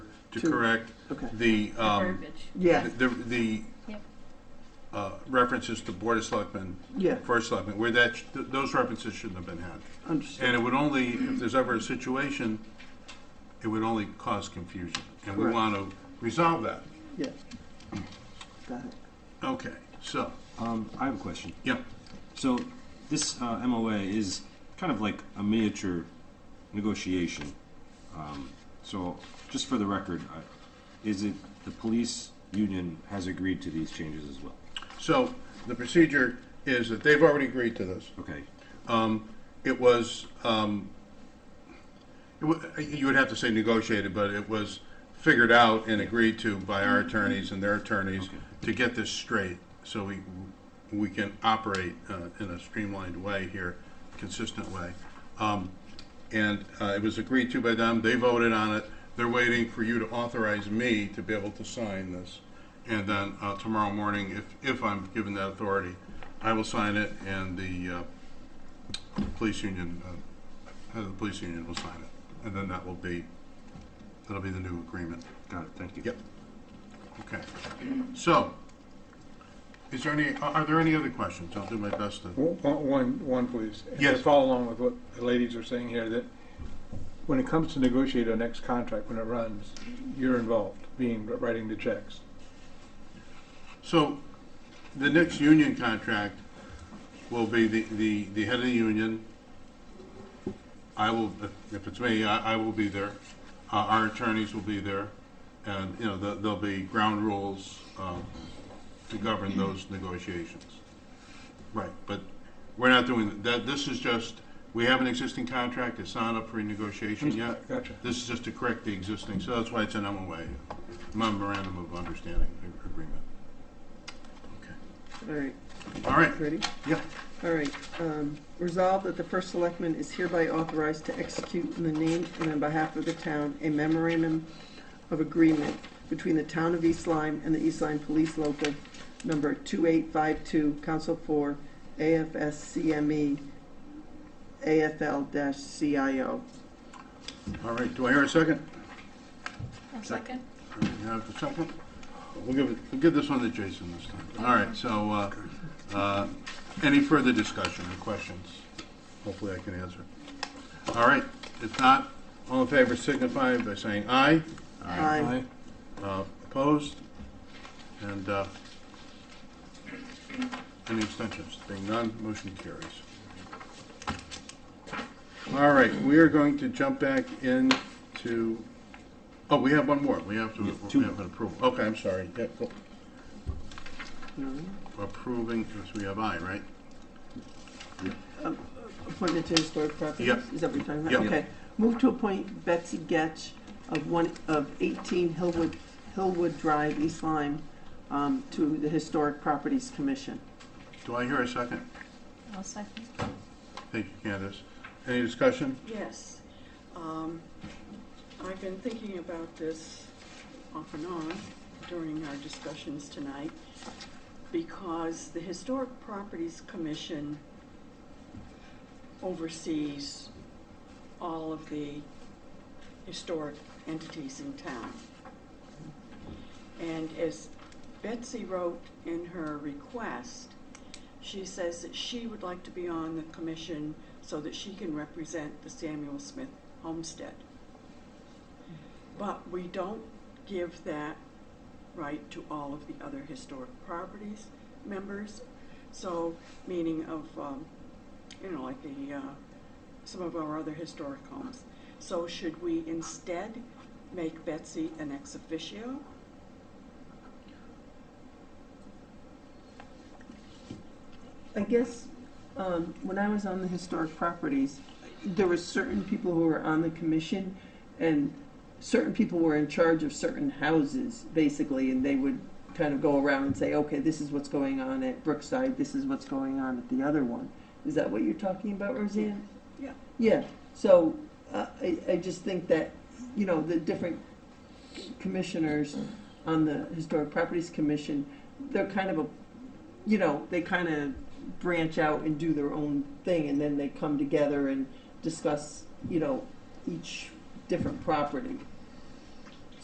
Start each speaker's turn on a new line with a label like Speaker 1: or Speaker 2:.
Speaker 1: to
Speaker 2: To-
Speaker 1: correct
Speaker 2: okay.
Speaker 1: the, um,
Speaker 3: verbiage.
Speaker 2: Yeah,
Speaker 1: the, the,
Speaker 3: Yep.
Speaker 1: uh, references to Board of Selectmen,
Speaker 2: yeah,
Speaker 1: First Selectmen, where that, sh- th- those references shouldn't have been had.
Speaker 2: understood.
Speaker 1: And it would only, if there's ever a situation, it would only cause confusion. And we
Speaker 2: Correct.
Speaker 1: want to resolve that.
Speaker 2: Yeah. Got it.
Speaker 1: Okay, so,
Speaker 4: Um, I have a question.
Speaker 1: yeah,
Speaker 4: So this uh, MOA is kind of like a miniature negotiation. Um, so just for the record, I, is it the police union has agreed to these changes as well?
Speaker 1: so the procedure is that they've already agreed to this.
Speaker 4: Okay.
Speaker 1: It was, um, it wa- you would have to say negotiated, but it was figured out and agreed to by our attorneys and their attorneys to get this straight, so we, we can operate uh, in a streamlined way here, consistent way. Um, And uh, it was agreed to by them, they voted on it, they're waiting for you to authorize me to be able to sign this. And then uh, tomorrow morning, if, if I'm given that authority, I will sign it, and the uh, police union, uh, head of the police union will sign it, and then that will be, that'll be the new agreement.
Speaker 4: Got it. Thank you.
Speaker 1: Yep. Okay. So, is there any, are are there any other questions? I'll do my best to,
Speaker 5: One, one- one, please. And to
Speaker 1: Yes.
Speaker 5: Follow along with what the ladies are saying here, that when it comes to negotiate our next contract, when it runs, you're involved, being, writing the checks.
Speaker 1: so, the next union contract will be the, the, the head of the union. I will, if- if it's me, I, I will be there. Uh, Our attorneys will be there, and, you know, there- there'll be ground rules uh, to govern those negotiations. Right, but we're not doing, that, this is just, we have an existing contract, it's not up for renegotiation yet.
Speaker 5: Gotcha.
Speaker 1: This is just to correct the existing, so that's why it's an MOA, memorandum of understanding a- agreement. Okay,
Speaker 2: All right,
Speaker 1: all right,
Speaker 2: ready?
Speaker 1: yeah,
Speaker 2: All right, um, resolved that the first selectman is hereby authorized to execute in the name and on behalf of the town a memorandum of agreement between the town of East Lyme and the East Lyme Police Local Number 2852, Council 4, AFSCME, AFL-CIO.
Speaker 1: all right, do I hear a second?
Speaker 3: One second.
Speaker 1: You have a second? We'll give, it- we'll give this one to Jason this time. All right, so, uh, uh, any further discussion or questions? Hopefully I can answer. All right, if not, all in favor signify by saying aye.
Speaker 2: Aye.
Speaker 1: Uh, Opposed? And uh, any extensions? Being none, motion carries. All right, we are going to jump back into, oh, we have one more. We have to, we have an approval. Okay, I'm sorry. Yeah, go-
Speaker 2: No?
Speaker 1: Approving, because we have I, right?
Speaker 2: Appointment to historic properties?
Speaker 1: Yep.
Speaker 2: Is that what you're talking about?
Speaker 1: Yep.
Speaker 2: Okay. Move to appoint Betsy Getch of one, of 18 Hillwood, Hillwood Drive, East Lyme, um, to the Historic Properties Commission.
Speaker 1: Do I hear a second?
Speaker 3: One second.
Speaker 1: Thank you, Candace. Any discussion?
Speaker 6: Yes. Um, I've been thinking about this off and on during our discussions tonight because the Historic Properties Commission oversees all of the historic entities in town. And as Betsy wrote in her request, she says that she would like to be on the commission so that she can represent the Samuel Smith homestead. But we don't give that right to all of the other historic properties members. So, meaning of, um, you know, like the, uh, some of our other historic homes. So should we instead make Betsy an ex officio?
Speaker 2: I guess, um, when I was on the Historic Properties, there were certain people who were on the commission, and certain people were in charge of certain houses, basically, and they would kind of go around and say, okay, this is what's going on at Brookside, this is what's going on at the other one. Is that what you're talking about, Roseanne?
Speaker 6: Yeah.
Speaker 2: Yeah, so, uh, I, I just think that, you know, the different commissioners on the Historic Properties Commission, they're kind of a, you know, they kind of branch out and do their own thing, and then they come together and discuss, you know, each different property.